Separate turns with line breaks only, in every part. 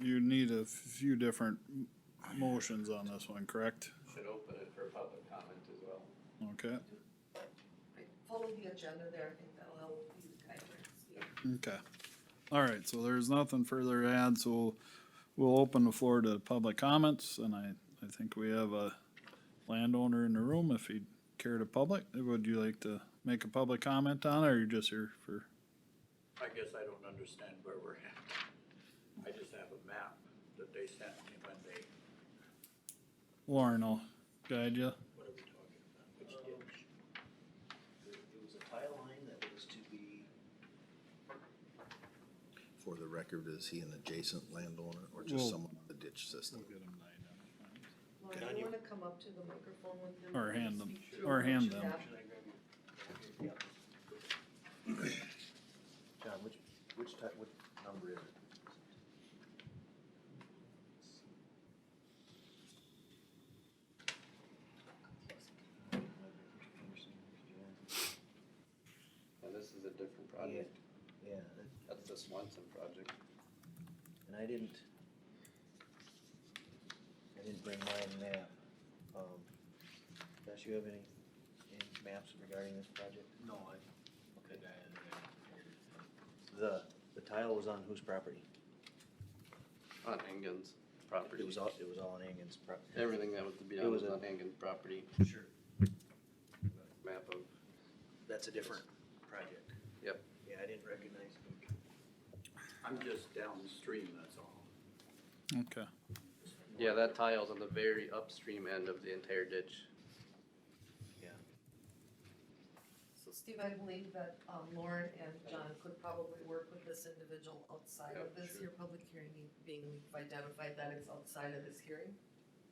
you need a few different motions on this one, correct?
Should open it for public comment as well.
Okay,
Right, Follow the agenda there, I think that'll help you guys see.
okay. All right, so there's nothing further to add, so we'll open the floor to public comments, and I, I think we have a landowner in the room, if he'd care to public, would you like to make a public comment on it, or you're just here for?
I guess I don't understand where we're at. I just have a map that they sent me when they,
Lauren will guide you.
what are we talking about? Which
Um,
ditch?
It was a tile line that was to be,
For the record, is he an adjacent landowner or just
Well-
someone on the ditch system?
Lauren,
Can
do you
you-
wanna come up to the microphone with them?
Or
and
hand them-
speak through
or
what
hand
you
them.
have?
Should I grab your?
yeah.
John, which, which type, what number is it?
Now, this is a different
Yeah,
project.
yeah,
That's the Swanson project.
and I didn't, I didn't bring my map. Um, Josh, you have any, any maps regarding this project?
No, I,
Okay. The, the tile was on whose property?
On Engen's property.
It was all, it was all on Angus property.
Everything that was to be
It
on
was
was
a-
on Engen's property,
Sure.
map of,
That's a different project.
Yep.
Yeah, I didn't recognize it.
I'm just downstream, that's all.
Okay,
yeah, that tile's on the very upstream end of the entire ditch.
So Steve, I believe that um, Lauren and John could probably work with this individual outside of
Yeah,
this,
sure.
your public hearing being, we've identified that it's outside of this hearing,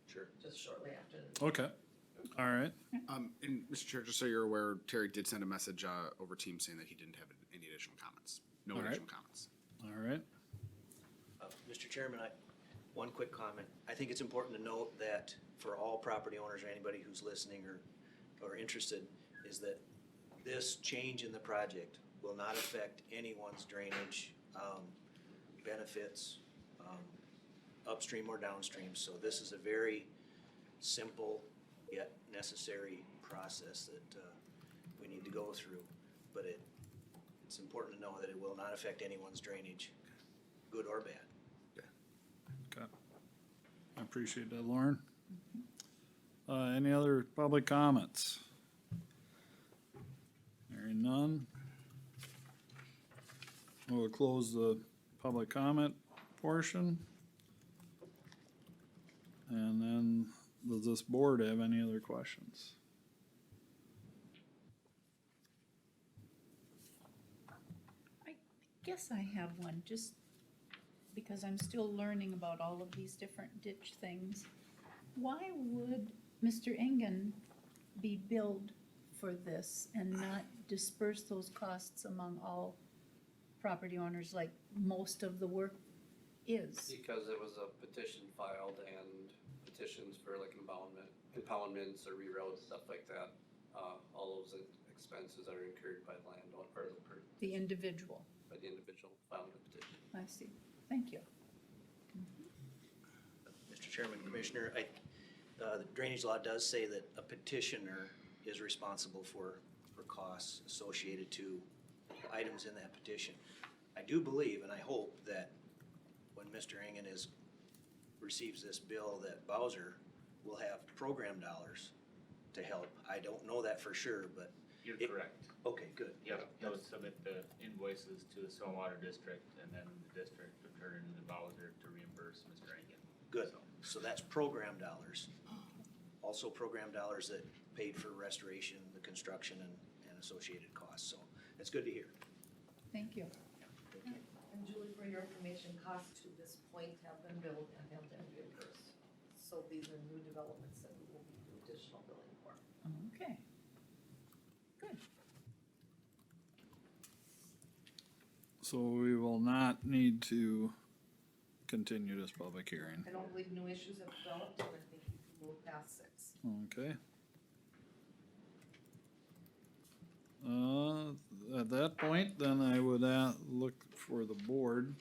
Sure.
just shortly after. the-
okay, all right.
Um, and Mr. Chair, just so you're aware, Terry did send a message, uh, over Teams saying that he didn't have any additional comments. No
All right.
additional comments.
All right,
Uh, Mr. Chairman, I, one quick comment. I think it's important to note that for all property owners or anybody who's listening or, or interested, is that this change in the project will not affect anyone's drainage, um, benefits, um, upstream or downstream. So this is a very simple yet necessary process that, uh, we need to go through. But it, it's important to know that it will not affect anyone's drainage, good or bad.
okay. I appreciate that, Lauren. Uh, any other public comments? Hearing none. We'll close the public comment portion. And then, does this board have any other questions?
Guess I have one, just because I'm still learning about all of these different ditch things. Why would Mr. Engen be billed for this and not disperse those costs among all property owners like most of the work is?
Because it was a petition filed and petitions for like impoundment, impoundments or reroutes, stuff like that. Uh, all those expenses are incurred by the landowner or the per,
The individual,
by the individual filing the petition.
I see, thank you.
Mr. Chairman, Commissioner, I, uh, the drainage law does say that a petitioner is responsible for, for costs associated to the items in that petition. I do believe and I hope that when Mr. Engen is, receives this bill, that Bowser will have program dollars to help. I don't know that for sure, but,
You're
It-
correct.
okay, good.
Yep, he'll submit the invoices to the stormwater district and then the district will turn to the Bowser to reimburse Mr. Engen.
Good.
So-
So that's program dollars. Also program dollars that paid for restoration, the construction and, and associated costs. So that's good to hear.
Thank you.
And Julie, for your information, costs to this point have been billed and have been reimbursed. So these are new developments that we will do additional billing for.
Okay. Good.
So we will not need to continue this public hearing,
I don't believe new issues have developed, and I think you can move past six.
okay? Uh, at that point, then I would, uh, look for the board